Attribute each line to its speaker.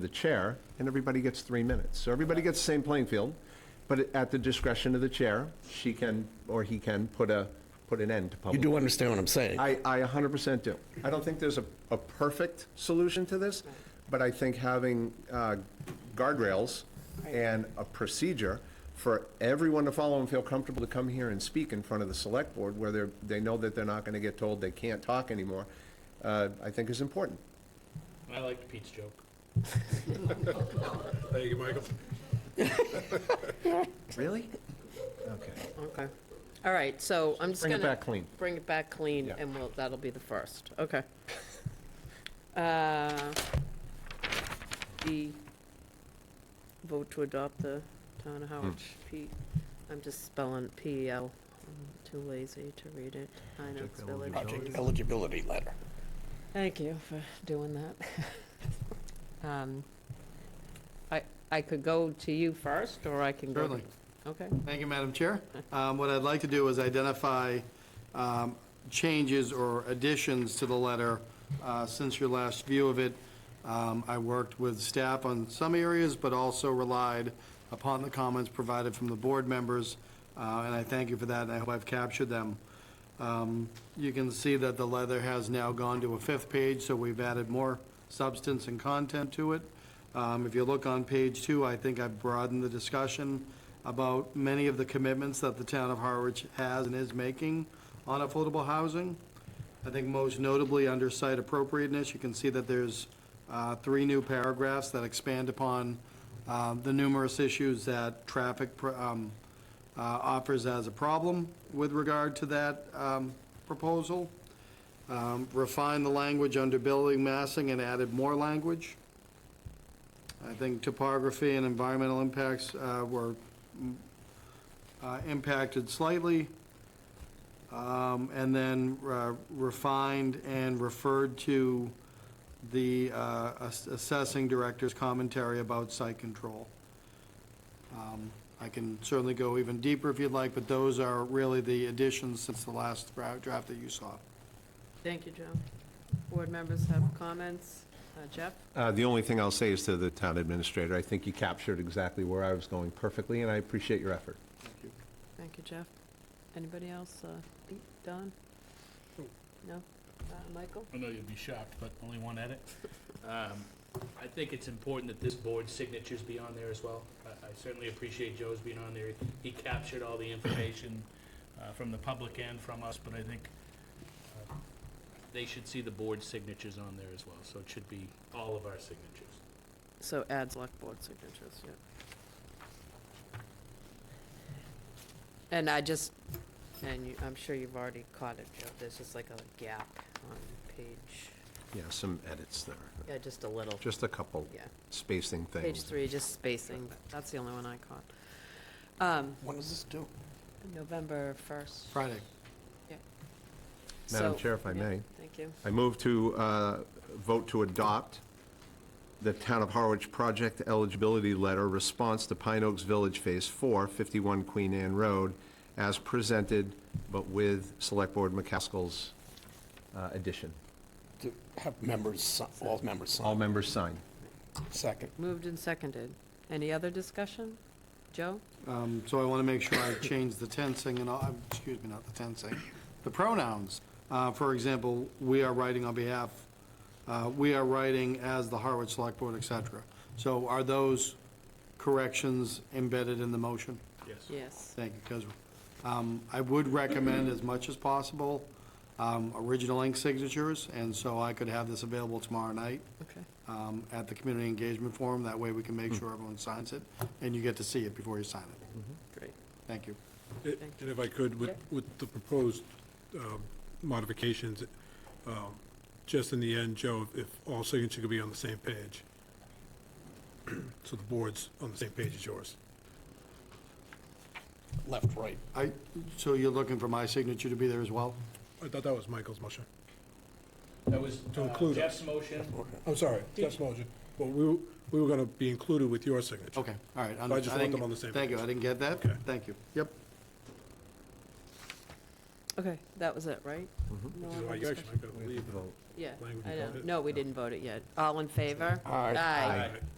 Speaker 1: the chair, and everybody gets three minutes. So everybody gets the same playing field, but at the discretion of the chair, she can, or he can, put a, put an end to
Speaker 2: You
Speaker 1: public.
Speaker 2: do understand what I'm saying?
Speaker 1: I, I 100% do. I don't think there's a, a perfect solution to this, but I think having uh, guardrails and a procedure for everyone to follow and feel comfortable to come here and speak in front of the select board where they're, they know that they're not going to get told they can't talk anymore, uh, I think is important.
Speaker 3: I liked Pete's joke.
Speaker 4: Thank you, Michael.
Speaker 1: Really? Okay.
Speaker 5: Okay. All right, so I'm just
Speaker 1: Bring
Speaker 5: gonna.
Speaker 1: it back clean.
Speaker 5: Bring it back clean,
Speaker 1: Yeah.
Speaker 5: and we'll, that'll be the first, okay. Uh, The vote to adopt the town of Howard,
Speaker 1: Hmm.
Speaker 5: P, I'm just spelling P-E-L, I'm too lazy to read it, Hinox Village.
Speaker 2: Project eligibility letter.
Speaker 5: Thank you for doing that. Um, I, I could go to you first, or I can go. to-
Speaker 6: Certainly.
Speaker 5: Okay,
Speaker 6: Thank you, Madam Chair. Um, What I'd like to do is identify um, changes or additions to the letter uh, since your last view of it. Um, I worked with staff on some areas, but also relied upon the comments provided from the board members, uh, and I thank you for that, and I hope I've captured them. Um, You can see that the leather has now gone to a fifth page, so we've added more substance and content to it. Um, If you look on page two, I think I've broadened the discussion about many of the commitments that the town of Harwich has and is making on affordable housing. I think most notably under site appropriateness, you can see that there's uh, three new paragraphs that expand upon uh, the numerous issues that traffic pr- um, uh, offers as a problem with regard to that um, proposal. Um, Refined the language under building massing and added more language. I think topography and environmental impacts uh, were mm, uh, impacted slightly. Um, And then uh, refined and referred to the uh, ass- assessing director's commentary about site control. Um, I can certainly go even deeper if you'd like, but those are really the additions since the last dra- draft that you saw.
Speaker 5: thank you, Joe. Board members have comments, Uh, Jeff?
Speaker 1: Uh, The only thing I'll say is to the town administrator, I think you captured exactly where I was going perfectly, and I appreciate your effort.
Speaker 5: Thank you, Jeff. Anybody else? Uh, Pete, Don? No? Uh, Michael?
Speaker 3: I know you'd be shocked, but only one edit. Um, I think it's important that this board's signatures be on there as well. I I certainly appreciate Joe's being on there. He captured all the information uh, from the public and from us, but I think uh, they should see the board's signatures on there as well, so it should be all of our signatures.
Speaker 5: So add select board signatures, yeah. And I just, and you, I'm sure you've already caught it, Joe, there's just like a gap on page,
Speaker 1: Yeah, some edits there,
Speaker 5: yeah, just a little,
Speaker 1: just a couple
Speaker 5: yeah.
Speaker 1: spacing things.
Speaker 5: Page three, just spacing, that's the only one I caught. Um,
Speaker 2: When does this do?
Speaker 5: November first.
Speaker 6: Friday.
Speaker 1: Madam
Speaker 5: So-
Speaker 1: Chair, if I
Speaker 5: yeah,
Speaker 1: may.
Speaker 5: Thank you.
Speaker 1: I move to uh, vote to adopt the Town of Harwich Project Eligibility Letter Response to Pine Oaks Village Phase 4, 51 Queen Anne Road, as presented, but with Select Board McCaskill's uh, addition.
Speaker 2: To have members, si- all members
Speaker 1: All
Speaker 2: sign.
Speaker 1: members sign.
Speaker 2: Second.
Speaker 5: Moved and seconded. Any other discussion? Joe?
Speaker 6: Um, So I want to make sure I change the tensing and, all- um, excuse me, not the tensing, the pronouns. Uh, For example, we are writing on behalf, uh, we are writing as the Harwich Select Board, et cetera. So are those corrections embedded in the motion?
Speaker 3: Yes.
Speaker 5: Yes.
Speaker 6: Thank you, because um, I would recommend as much as possible um, original ink signatures, and so I could have this available tomorrow night
Speaker 5: Okay.
Speaker 6: um, at the community engagement forum. That way we can make sure everyone signs it, and you get to see it before you sign it.
Speaker 5: Great.
Speaker 6: Thank you.
Speaker 4: And if I could, with, with the proposed um, modifications, um, just in the end, Joe, if all signatures could be on the same page, so the board's on the same page as yours.
Speaker 2: Left, right.
Speaker 6: I, so you're looking for my signature to be there as well?
Speaker 4: I thought that was Michael's motion.
Speaker 3: That was
Speaker 4: To
Speaker 3: uh,
Speaker 4: include us.
Speaker 3: Jeff's motion.
Speaker 4: I'm sorry, Jeff's motion, but we, were- we were going to be included with your signature.
Speaker 6: Okay, all right.
Speaker 4: So I just want
Speaker 6: didn't-
Speaker 4: them on the same
Speaker 6: Thank you,
Speaker 4: page.
Speaker 6: I didn't get that.
Speaker 4: Okay.
Speaker 6: Thank you. Yep.
Speaker 5: Okay, that was it, right? No
Speaker 4: Which is
Speaker 5: other
Speaker 4: why you actually
Speaker 5: discussion?
Speaker 4: might be able to leave.
Speaker 5: Yeah,
Speaker 4: language
Speaker 5: I know.
Speaker 4: about it.
Speaker 5: No, we didn't vote it yet. All in favor?
Speaker 2: Aye.
Speaker 5: Aye.
Speaker 4: Aye.